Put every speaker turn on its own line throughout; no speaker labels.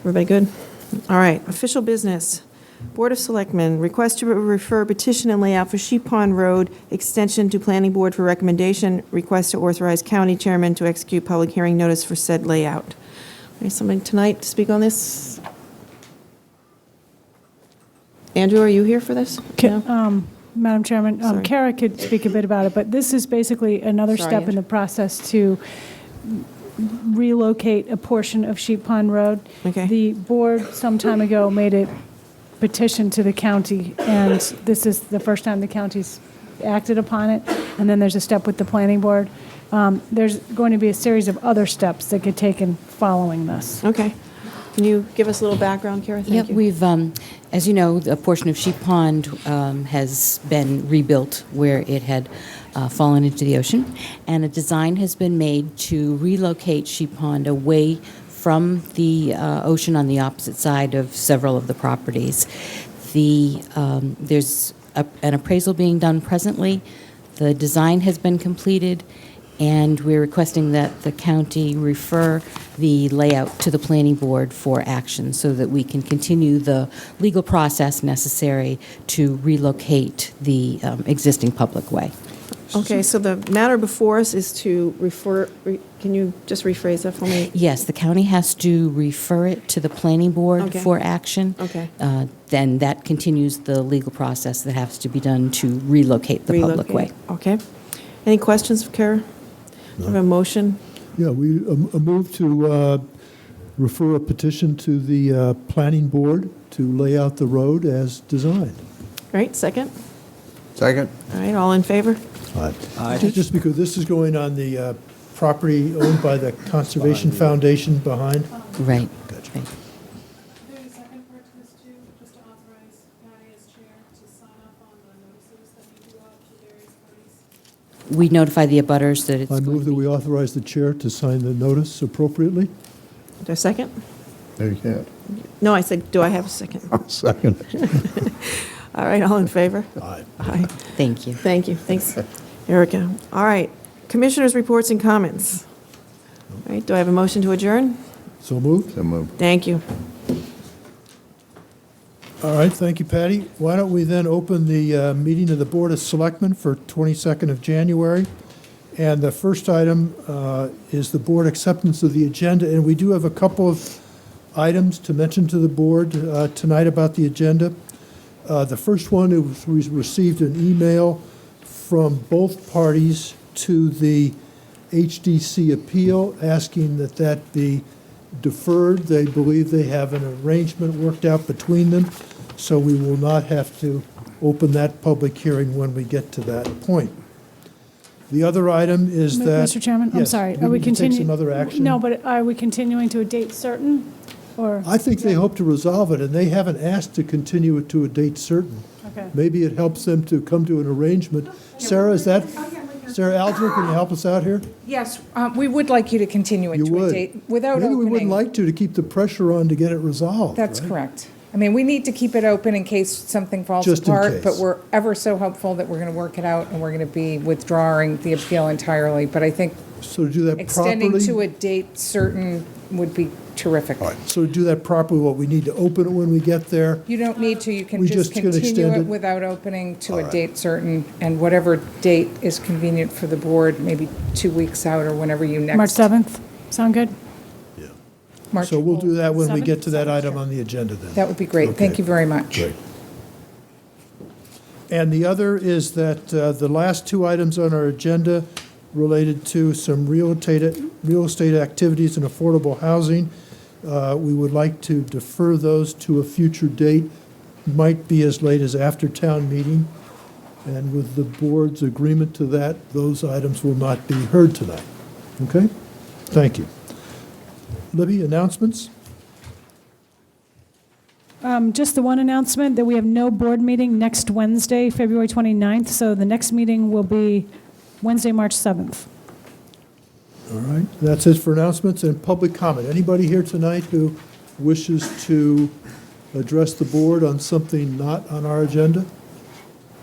Everybody good? All right, official business. Board of Selectmen, request to refer petition and layout for Sheep Pond Road extension to Planning Board for recommendation. Request to authorize county chairman to execute public hearing notice for said layout. Is somebody tonight to speak on this? Andrew, are you here for this? No?
Um, Madam Chairman, um,
Sorry.
Kara could speak a bit about it, but this is basically another
Sorry,
step in
Andrew.
the process to relocate a portion of Sheep Pond Road.
Okay.
The board some time ago made a petition to the county, and this is the first time the county's acted upon it, and then there's a step with the planning board. Um, There's going to be a series of other steps that get taken following this.
Okay. Can you give us a little background, Kara? Thank
Yep,
you.
we've, um, as you know, a portion of Sheep Pond um, has been rebuilt where it had uh, fallen into the ocean, and a design has been made to relocate Sheep Pond away from the uh, ocean on the opposite side of several of the properties. The, um, there's a- an appraisal being done presently, the design has been completed, and we're requesting that the county refer the layout to the planning board for action so that we can continue the legal process necessary to relocate the um, existing public way.
Okay, so the matter before us is to refer, re- can you just rephrase that for me?
Yes, the county has to refer it to the planning board
Okay.
for action.
Okay.
Uh, Then that continues the legal process that has to be done to relocate the public
Relocate.
way.
Okay. Any questions for Kara? We have a motion?
Yeah, we, a a move to uh, refer a petition to the uh, planning board to lay out the road as designed.
All right, second?
Second?
All right, all in favor?
Ju- Just because this is going on the uh, property owned by the Conservation Foundation behind.
Right.
Gotcha.
Right.
There's a second part to this too, just to authorize Patty as chair to sign up on the notices that we do out to various parties.
We notify the abutters that it's
I
going to
move that
be-
we authorize the chair to sign the notice appropriately.
Is there a second?
There you go.
No, I said, do I have a second?
Second.
All right, all in favor?
Aye.
Aye.
Thank you.
Thank you, thanks, Erica. All right, commissioners' reports and comments. All right, do I have a motion to adjourn?
So moved.
So moved.
Thank you.
All right, thank you, Patty. Why don't we then open the uh, meeting of the Board of Selectmen for 22nd of January? And the first item uh, is the board acceptance of the agenda, and we do have a couple of items to mention to the board uh, tonight about the agenda. Uh, The first one is we received an email from both parties to the HDC appeal asking that that be deferred. They believe they have an arrangement worked out between them, so we will not have to open that public hearing when we get to that point. The other item is
M-
that.
Mr. Chairman, I'm
Yes,
sorry. Are we
need to take
continuing?
some other action.
No, but are we continuing to a date certain, or?
I think they hope to resolve it, and they haven't asked to continue it to a date certain.
Okay.
Maybe it helps them to come to an arrangement. Sarah, is that, Sarah Alger, can you help us out here?
Yes, uh, we would like you to continue it
You
to a
would.
date without opening.
Maybe we wouldn't like to, to keep the pressure on to get it resolved,
That's
right?
correct. I mean, we need to keep it open in case something falls
Just in
apart, but
case.
we're ever so hopeful that we're going to work it out and we're going to be withdrawing the appeal entirely. But I think
So to do that
extending to
properly,
a date certain would be terrific.
so to do that properly, what, we need to open it when we get there?
You don't need to, you can
We
just
just gonna
continue
extend
it
it?
without opening to a date certain, and whatever date is convenient for the board, maybe two weeks out or whenever you next.
March 7th? Sound good?
March-
So we'll do that when we
Seven?
get to that item on the agenda then.
That would be great. Thank
Okay.
you very much.
And the other is that uh, the last two items on our agenda related to some real estate, real estate activities and affordable housing. Uh, We would like to defer those to a future date, might be as late as after town meeting. And with the board's agreement to that, those items will not be heard tonight. Okay? Thank you. Libby, announcements?
Um, Just the one announcement, that we have no board meeting next Wednesday, February 29th, so the next meeting will be Wednesday, March 7th.
All right, that's it for announcements and public comment. Anybody here tonight who wishes to address the board on something not on our agenda?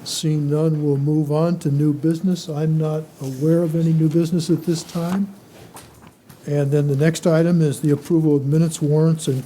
Seeing none, we'll move on to new business. I'm not aware of any new business at this time. And then the next item is the approval of minutes, warrants, and